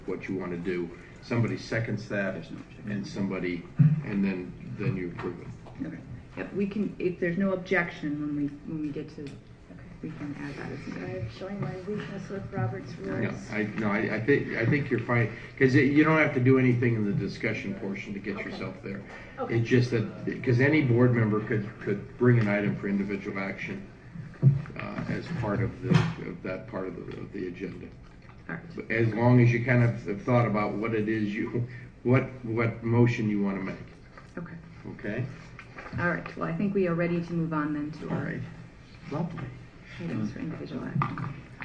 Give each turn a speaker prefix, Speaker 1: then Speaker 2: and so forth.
Speaker 1: what you want to do. Somebody seconds that,
Speaker 2: There's no objection.
Speaker 1: and somebody, and then, then you approve it.
Speaker 2: Okay. Yep, we can, if there's no objection when we, when we get to, we can add that as an
Speaker 3: I'm showing my weakness with Robert's
Speaker 1: No,
Speaker 3: rules.
Speaker 1: I, no, I, I think, I think you're fine, because you don't have to do anything in the discussion portion to get
Speaker 3: Okay.
Speaker 1: yourself there.
Speaker 3: Okay.
Speaker 1: It's just that, because any board member could, could bring an item for individual action uh, as part of the, of that part of the, of the agenda.
Speaker 2: Alright,
Speaker 1: But As long as you kind of have thought about what it is you, what, what motion you want to make,
Speaker 2: okay.
Speaker 1: okay?
Speaker 2: Alright, well, I think we are ready to move on then to
Speaker 1: All
Speaker 2: our
Speaker 1: right, lovely.
Speaker 2: items for individual action.